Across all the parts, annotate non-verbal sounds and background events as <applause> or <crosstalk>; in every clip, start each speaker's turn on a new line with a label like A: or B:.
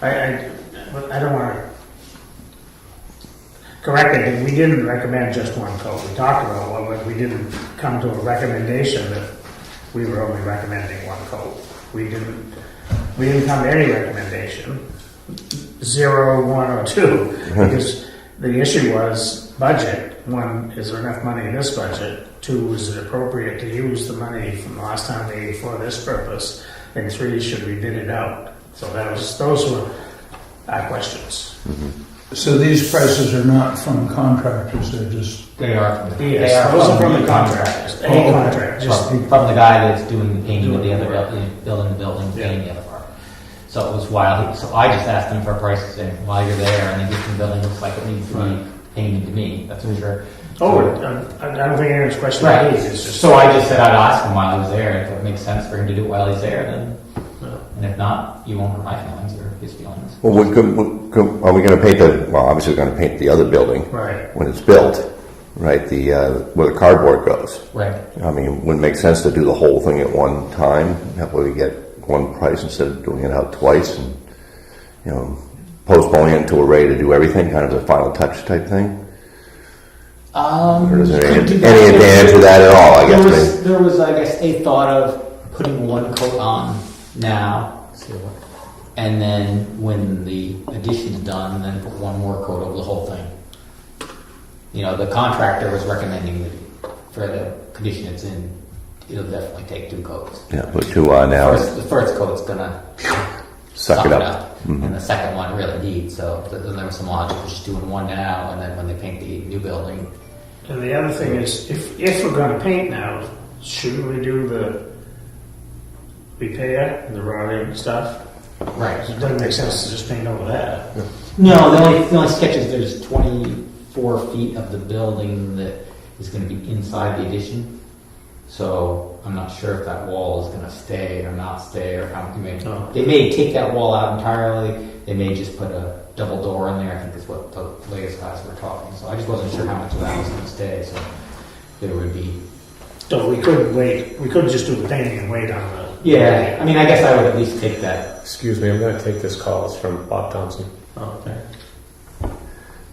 A: I, I, but I don't wanna. Correct it, and we didn't recommend just one coat, we talked about one, but we didn't come to a recommendation that we were only recommending one coat. We didn't, we didn't come to any recommendation, zero, one, or two, because the issue was budget. One, is there enough money in this budget? Two, is it appropriate to use the money from the last time we, for this purpose? And three, should we bid it out? So that was, those were our questions.
B: So these prices are not from contractors, they're just,
C: They are. They
A: Yes,
C: are
A: those are from the
C: contract.
A: contractors, any contract, just,
C: Oh, From from the guy that's doing the painting of the
A: Doing
C: other
A: the work.
C: building, building the building, painting the other part. So it was wild, so I just asked him for a price, saying, while you're there, and the existing building looks like it needs to be painted to me, that's for sure.
A: oh, I I don't think anyone's questioning
C: Right.
A: these, it's just.
C: So I just said I'd ask him while he was there, if it makes sense for him to do it while he's there, then,
A: uh,
C: and if not, you won't hurt my feelings or his feelings.
D: Well, we could, we could- are we going to paint the, well, obviously we're going to paint the other building
A: Right,
D: when it's built, right? The, uh, where the cardboard goes.
C: Right.
D: I mean, wouldn't it make sense to do the whole thing at one time? That way we get one price instead of doing it out twice and, you know, postponing it until we're ready to do everything, kind of a final touch type thing?
C: Um.
D: Or is there
C: could
D: any,
C: do
D: any advantage to that at all, I
C: There
D: guess?
C: was,
D: maybe?
C: there was, I guess, a thought of putting one coat on now, and then when the addition's done, then put one more coat over the whole thing. You know, the contractor was recommending that for the condition it's in, it'll definitely take two coats.
D: Yeah, put two on now
C: First,
D: and
C: the first coat's gonna
D: suck it up. Mm-hmm.
C: and the second one really needs, so th- then there was some logic, of just doing one now, and then when they paint the new building,
A: and the other thing is, if, if we're gonna paint now, shouldn't we do the repair, and the rotting stuff?
C: right.
A: It doesn't make sense to just paint over that.
C: No, the only, the only sketch is there's 24 feet of the building that is going to be inside the addition. So I'm not sure if that wall is going to stay or not stay or how they may,
A: Oh.
C: they may take that wall out entirely. They may just put a double door in there. I think is what the latest guys were talking. So I just wasn't sure how much of that was going to stay. So there would be.
A: So we could wait, we could just do the painting and wait on the.
C: Yeah, I mean, I guess I would at least take that.
E: Excuse me, I'm going to take this call. It's from Bob Thompson.
A: Okay.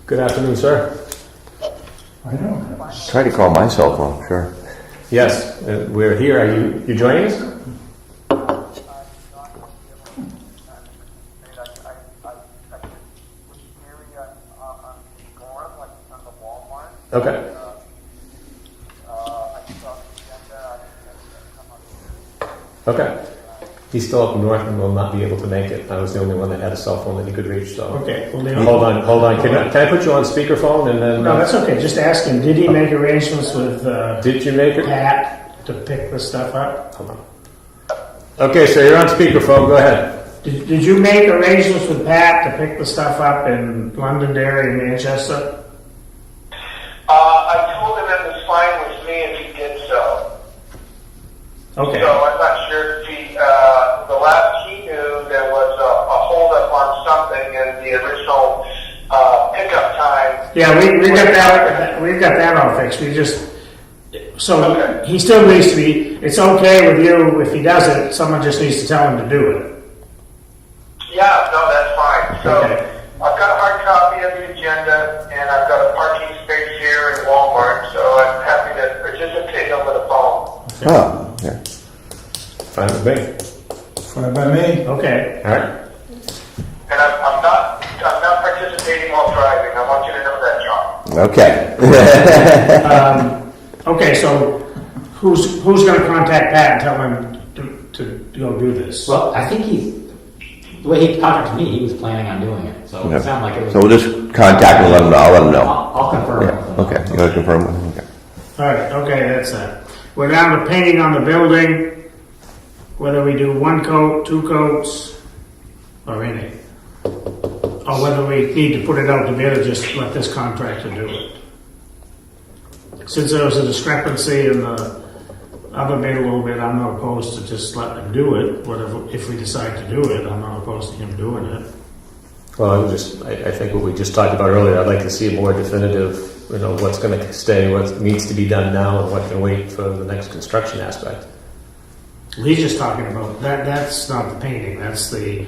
E: Good afternoon, sir.
B: I don't know.
D: Try to call my cell phone, sure.
E: Yes, uh, we're here. Are you you joining us? Okay. Okay. He's still up north and will not be able to make it. I was the only one that had a cell phone that he could reach. So
A: Okay, well, then-
E: hold on, hold on. Can I, can I put you on speakerphone and then?
A: No, that's okay, just ask him, did he make arrangements with, uh,
E: Did you make it?
A: Pat to pick this stuff up?
E: Hold on. Okay, so you're on speakerphone. Go ahead.
A: Did, did you make arrangements with Pat to pick the stuff up in Londonderry and Manchester?
F: Uh, I told him it was fine with me if he did so.
A: Okay,
F: So I'm not sure if he, uh, the last he knew, there was a, a holdup on something and the original, uh, pickup time.
A: yeah, we, we got that, we've got that all fixed, we just, so
F: Okay.
A: he still needs to be, it's okay with you if he does it, someone just needs to tell him to do it.
F: Yeah, no, that's fine. So
A: Okay.
F: I've got a hard copy of the agenda and I've got a parking space here in Walmart, so I'm happy to participate over the phone.
D: Oh, yeah.
E: Fine with me.
B: Fine by me.
A: Okay,
E: All right.
F: And I'm, I'm not, I'm not participating while driving. I want you to know that, John.
D: Okay. <laughs>
A: okay, so who's, who's gonna contact Pat and tell him to, to go do this?
C: Well, I think he's, the way he talked to me, he was planning on doing it. So it sounded like it was.
D: So we'll just contact and let them know. I'll let them know.
C: I'll, I'll confirm.
D: Yeah, okay. You want to confirm? with them?
A: All right, okay, that's that. We're down to painting on the building, whether we do one coat, two coats, or any. Or whether we need to put it out to bid or just let this contractor do it. Since there was a discrepancy in the other bid a little bit, I'm not opposed to just let them do it, whatever, if we decide to do it, I'm not opposed to him doing it.
E: Well, I would just, I, I think what we just talked about earlier, I'd like to see a more definitive, you know, what's going to stay, what needs to be done now, and what can wait for the next construction aspect.
A: He's just talking about, that, that's not the painting, that's the